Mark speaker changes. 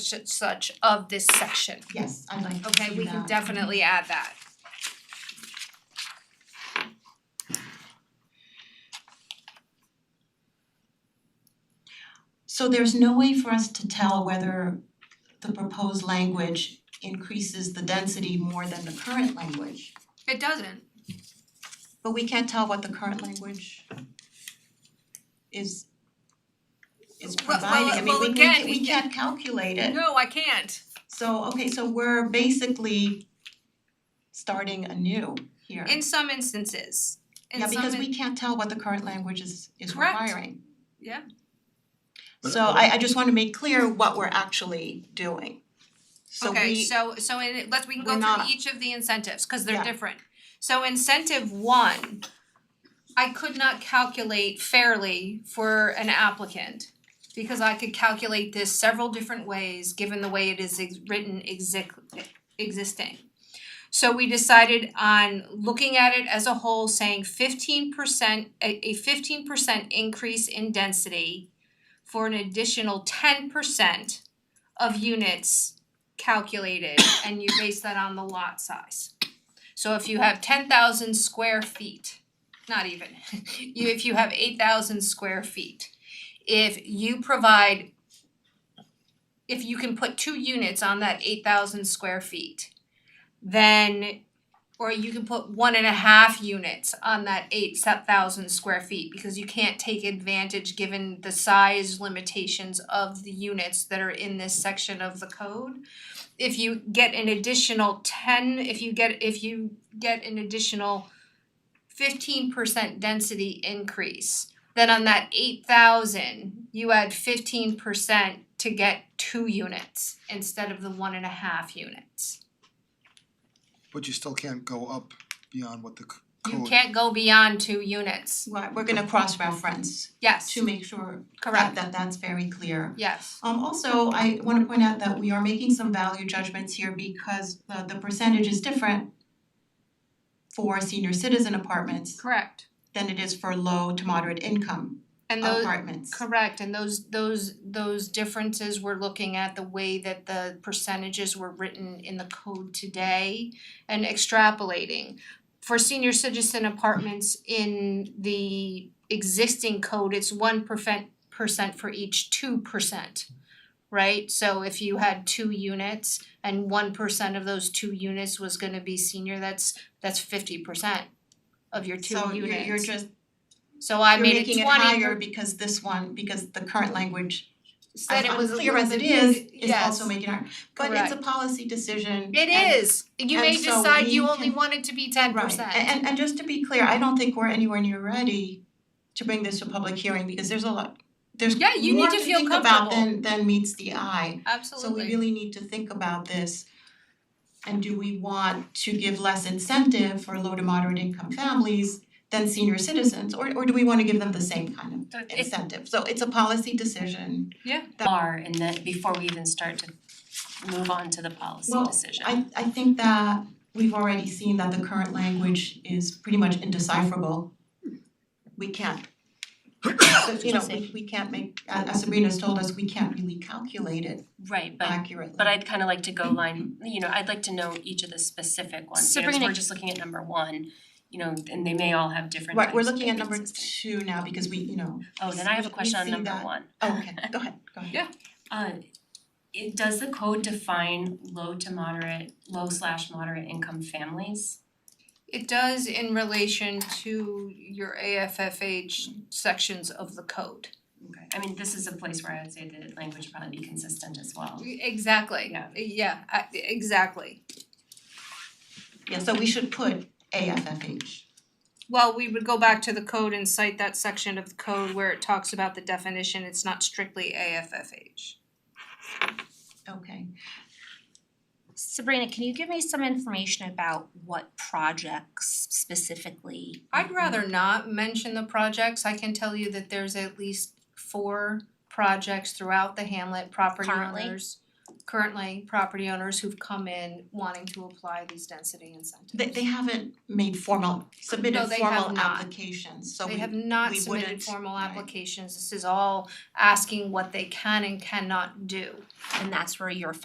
Speaker 1: such and such of this section.
Speaker 2: Yes, I'd like to see that.
Speaker 1: Okay, we can definitely add that.
Speaker 2: So there's no way for us to tell whether the proposed language increases the density more than the current language.
Speaker 1: It doesn't.
Speaker 2: But we can't tell what the current language is is
Speaker 1: Well- well,
Speaker 2: providing, I mean,
Speaker 1: well,
Speaker 2: we we
Speaker 1: again,
Speaker 2: can't, we
Speaker 1: we-
Speaker 2: can't calculate it.
Speaker 1: No, I can't.
Speaker 2: So, okay, so we're basically starting anew here.
Speaker 1: In some instances. In
Speaker 2: Yeah,
Speaker 1: some
Speaker 2: because
Speaker 1: in-
Speaker 2: we can't tell what the current language is is
Speaker 1: Correct.
Speaker 2: requiring.
Speaker 1: Yeah.
Speaker 3: But-
Speaker 2: So I I just wanna make clear what we're actually doing. So
Speaker 1: Okay,
Speaker 2: we,
Speaker 1: so so in let's we can go
Speaker 2: we're
Speaker 1: through
Speaker 2: not-
Speaker 1: each of the incentives, cause they're
Speaker 2: Yeah.
Speaker 1: different. So incentive one, I could not calculate fairly for an applicant. Because I could calculate this several different ways, given the way it is ex- written exi- existing. So we decided on looking at it as a whole, saying fifteen percent, a fifteen percent increase in density for an additional ten percent of units calculated and you base that on the lot size. So if you have ten thousand square feet, not even, you if you have eight thousand square feet, if you provide if you can put two units on that eight thousand square feet, then or you can put one and a half units on that eight thousand square feet because you can't take advantage given the size limitations of the units that are in this section of the code if you get an additional ten, if you get, if you get an additional fifteen percent density increase, then on that eight thousand, you add fifteen percent to get two units instead of the one and a half units.
Speaker 3: But you still can't go up beyond what the c- code.
Speaker 1: You can't go beyond two units,
Speaker 2: right, we're gonna cross-reference
Speaker 1: yes,
Speaker 2: to make sure that
Speaker 1: correct,
Speaker 2: that that's very clear.
Speaker 1: yes,
Speaker 2: Um also, I wanna point out that we are making some value judgments here because the the percentage is different for senior citizen apartments
Speaker 1: correct.
Speaker 2: than it is for low to moderate income
Speaker 1: And those,
Speaker 2: apartments.
Speaker 1: Correct, and those those those differences, we're looking at the way that the percentages were written in the code today and extrapolating. For senior citizen apartments in the existing code, it's one percent percent for each two percent. Right, so if you had two units and one percent of those two units was gonna be senior, that's that's fifty percent of your two
Speaker 2: So you're
Speaker 1: units.
Speaker 2: you're just
Speaker 1: So I
Speaker 2: you're
Speaker 1: made it
Speaker 2: making it
Speaker 1: twenty
Speaker 2: higher because this one, because the current language,
Speaker 1: said
Speaker 2: as
Speaker 1: it was a
Speaker 2: unclear
Speaker 1: little
Speaker 2: as it
Speaker 1: bit-
Speaker 2: is, is
Speaker 1: yes.
Speaker 2: also making it higher. But it's a policy decision.
Speaker 1: It
Speaker 2: and-
Speaker 1: is. You may
Speaker 2: and so
Speaker 1: decide you
Speaker 2: we
Speaker 1: only
Speaker 2: can-
Speaker 1: want it to be ten
Speaker 2: Right,
Speaker 1: percent.
Speaker 2: and and and just to be clear, I don't think we're anywhere near ready to bring this to public hearing because there's a lot, there's
Speaker 1: Yeah, you need
Speaker 2: more
Speaker 1: to
Speaker 2: to
Speaker 1: feel
Speaker 2: think about
Speaker 1: comfortable.
Speaker 2: than than meets the eye. So we
Speaker 1: Absolutely.
Speaker 2: really need to think about this. And do we want to give less incentive for low to moderate income families than senior citizens, or or do we wanna give them the same kind of
Speaker 1: It-
Speaker 2: incentive. So it's a policy decision.
Speaker 4: are and then before we even start to move on to the policy
Speaker 2: Well,
Speaker 4: decision.
Speaker 2: I I think that we've already seen that the current language is pretty much indecipherable. We can't. So, you know, we we can't make, as as Sabrina's told us, we can't really calculate it
Speaker 4: Right, but
Speaker 2: accurately.
Speaker 4: but I'd kind of like to go line, you know, I'd like to know each of the specific ones, you know, 'cause
Speaker 1: Sabrina-
Speaker 4: we're just looking at number one, you know, and they may all have different
Speaker 2: Right, we're
Speaker 4: types of
Speaker 2: looking at number
Speaker 4: inconsistency.
Speaker 2: two now because we, you know,
Speaker 4: Oh, then I have a
Speaker 2: we- we
Speaker 4: question on
Speaker 2: see
Speaker 4: number
Speaker 2: that.
Speaker 4: one.
Speaker 2: oh, okay, go ahead, go ahead.
Speaker 1: Yeah.
Speaker 4: Uh it does the code define low to moderate, low slash moderate income families?
Speaker 1: It does in relation to your AFFH sections of the code.
Speaker 4: Okay. I mean, this is a place where I would say the language would probably be consistent as well.
Speaker 1: Exactly.
Speaker 4: Yeah.
Speaker 1: Yeah, I- exactly.
Speaker 2: Yeah, so we should put AFFH.
Speaker 1: Well, we would go back to the code and cite that section of the code where it talks about the definition. It's not strictly AFFH.
Speaker 2: Okay,
Speaker 5: Sabrina, can you give me some information about what projects specifically?
Speaker 2: Mm-hmm.
Speaker 1: I'd rather not mention the projects. I can tell you that there's at least four projects throughout the hamlet, property
Speaker 5: Currently?
Speaker 1: owners. Currently? currently property owners who've come in wanting to apply these density incentives.
Speaker 2: They they haven't made formal, submitted
Speaker 1: No, they have
Speaker 2: formal
Speaker 1: not.
Speaker 2: applications, so we
Speaker 1: They have not
Speaker 2: we
Speaker 1: submitted
Speaker 2: wouldn't,
Speaker 1: formal
Speaker 2: right.
Speaker 1: applications, this is all asking what they can and cannot do.
Speaker 5: And that's where your